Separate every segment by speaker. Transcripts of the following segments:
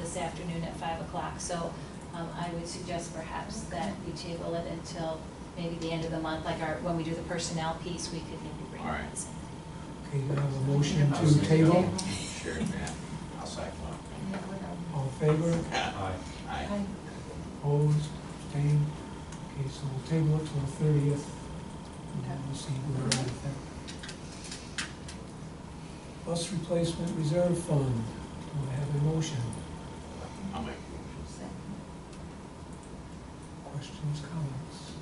Speaker 1: this afternoon at five o'clock. So um, I would suggest perhaps that we table it until maybe the end of the month, like our, when we do the personnel piece, we could maybe bring
Speaker 2: All right.
Speaker 1: that in.
Speaker 3: Okay, you have a motion to table,
Speaker 2: Sure, yeah, I'll second
Speaker 3: all in favor,
Speaker 2: that. Aye.
Speaker 3: opposed, abstained? Okay, so we'll table it till the thirtieth,
Speaker 4: Okay.
Speaker 3: we'll see where we're at with that. Bus replacement reserve fund, do I have a motion?
Speaker 2: I'll make,
Speaker 3: Questions, comments?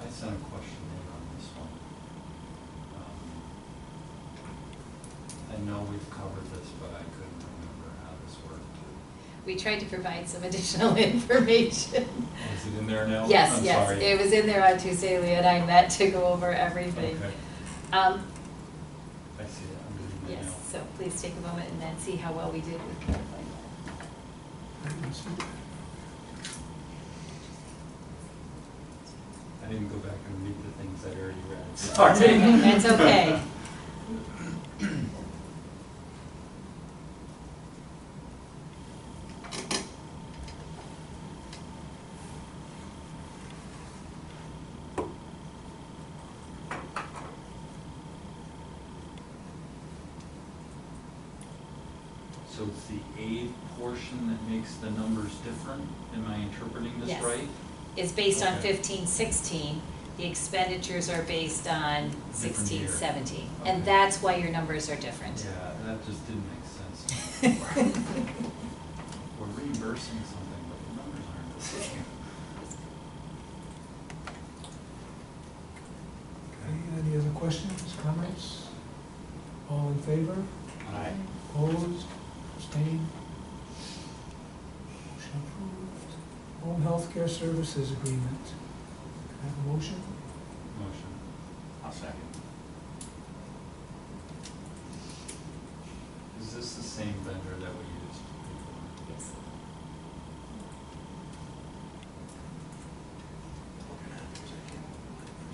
Speaker 5: I sent a question in on this one. Um, I know we've covered this, but I couldn't remember how this worked.
Speaker 1: We tried to provide some additional information.
Speaker 5: Is it in there now?
Speaker 1: Yes,
Speaker 5: I'm
Speaker 1: yes,
Speaker 5: sorry.
Speaker 1: it was in there on Tuesday, Leah and I met to go over everything.
Speaker 5: Okay,
Speaker 1: Um,
Speaker 5: I see it, I'm reading
Speaker 1: Yes,
Speaker 5: it now.
Speaker 1: so please take a moment and then see how well we did with clarifying that.
Speaker 3: Let me see.
Speaker 5: I didn't go back and read the things I already read,
Speaker 1: That's
Speaker 5: sorry.
Speaker 1: okay, That's okay.
Speaker 5: So it's the aid portion that makes the numbers different? Am I interpreting this
Speaker 1: Yes.
Speaker 5: right?
Speaker 1: It's based on
Speaker 5: Okay.
Speaker 1: fifteen, sixteen. The expenditures are based on sixteen,
Speaker 5: year.
Speaker 1: seventeen. And
Speaker 5: Okay.
Speaker 1: that's why your numbers are different.
Speaker 5: Yeah, that just didn't make sense. to me. We're reimbursing something, but the numbers aren't the same.
Speaker 3: Okay, any other questions, comments? All in favor,
Speaker 2: aye.
Speaker 3: opposed, abstained? Motion approved. Home health care services agreement. Can I Have a motion?
Speaker 5: Motion.
Speaker 2: I'll second.
Speaker 5: Is this the same vendor that we used before?
Speaker 1: Yes.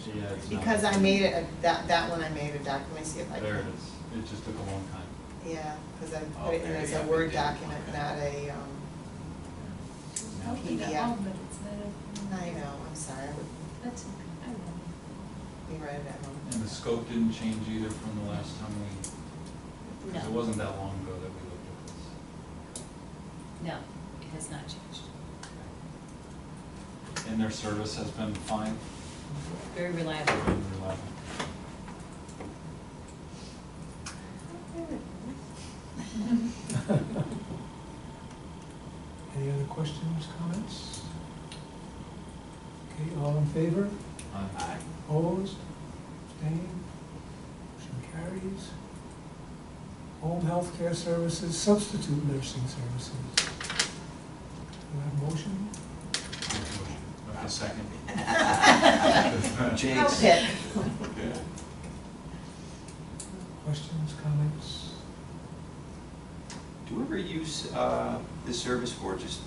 Speaker 5: Yeah, it's not.
Speaker 4: Because I made it, a- that, that one I made a document, see if I can.
Speaker 5: There it is. It just took a long time.
Speaker 4: Yeah, because I
Speaker 2: Oh,
Speaker 4: put it in
Speaker 2: there,
Speaker 4: as
Speaker 2: yeah,
Speaker 4: a
Speaker 2: we
Speaker 4: Word
Speaker 2: did.
Speaker 4: document,
Speaker 2: Okay.
Speaker 4: not a, um,
Speaker 2: No.
Speaker 6: Okay, that
Speaker 4: Yeah.
Speaker 6: all, but it's not a-
Speaker 4: I know, I'm sorry, I would,
Speaker 6: That's okay, I know.
Speaker 4: you read it at home.
Speaker 5: And the scope didn't change either from the last time we, because it
Speaker 1: No,
Speaker 5: wasn't that long ago that we looked at this.
Speaker 1: no, it has not changed.
Speaker 5: Okay. And their service has been fine,
Speaker 1: Very reliable.
Speaker 5: been reliable.
Speaker 3: Any other questions, comments? Okay, all in favor,
Speaker 2: Aye.
Speaker 3: opposed, abstained? Motion carries. Home health care services, substitute nursing services. Do I have a motion?
Speaker 5: Okay,
Speaker 2: I'll second.
Speaker 4: I'll
Speaker 2: Jinx.
Speaker 4: pick.
Speaker 2: Yeah.
Speaker 3: Questions, comments?
Speaker 7: Do we ever use uh, this service for just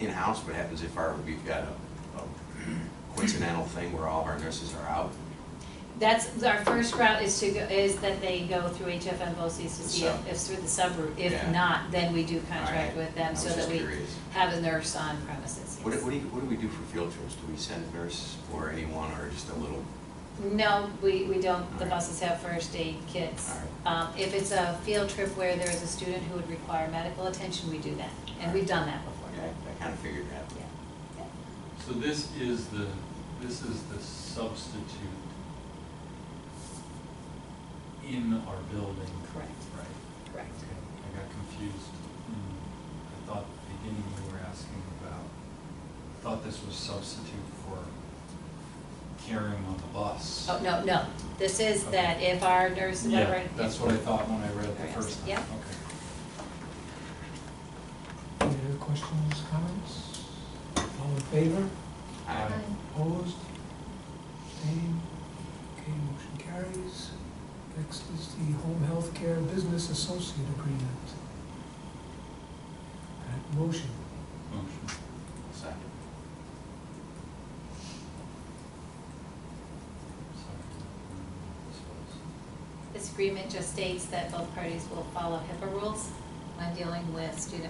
Speaker 7: in-house? What happens if our, we've got a a coincidental thing where all of our nurses are out?
Speaker 1: That's, our first route is to, go is that they go through HFM BOCES to see
Speaker 7: sub.
Speaker 1: if, if through the subroute. If
Speaker 7: Yeah.
Speaker 1: not, then we do contract
Speaker 7: Alright.
Speaker 1: with them so that
Speaker 7: I was just
Speaker 1: we
Speaker 7: curious.
Speaker 1: have a nurse on premises,
Speaker 7: What do,
Speaker 1: yes.
Speaker 7: what do you, what do we do for field trips? Do we send nurse or anyone or just a little?
Speaker 1: No, we, we don't, the
Speaker 7: Alright.
Speaker 1: buses have first aid kits. Um, if it's a field trip where there is a student who would require medical attention, we do that, and we've done that before.
Speaker 7: Yeah, I- I kind of figured that.
Speaker 1: Yeah, yeah.
Speaker 5: So this is the, this is the substitute in our building.
Speaker 1: Correct.
Speaker 5: Right.
Speaker 1: Correct.
Speaker 5: Okay, I got confused. I thought at the beginning you were asking about, I thought this was substitute for carrying on the bus.
Speaker 1: Oh, no, no, this is that if our nurse, whatever.
Speaker 5: Yeah, that's what I thought when I read it
Speaker 1: Yes,
Speaker 5: the first time.
Speaker 1: yeah.
Speaker 5: Okay.
Speaker 3: Any other questions, comments? All in favor,
Speaker 7: Aye.
Speaker 3: opposed, abstained? Okay, motion carries. Next is the home health care business associate agreement. Can I have a motion,
Speaker 5: Motion.
Speaker 7: Second.
Speaker 5: Sorry.
Speaker 1: This agreement just states that both parties will follow HIPAA rules when dealing with student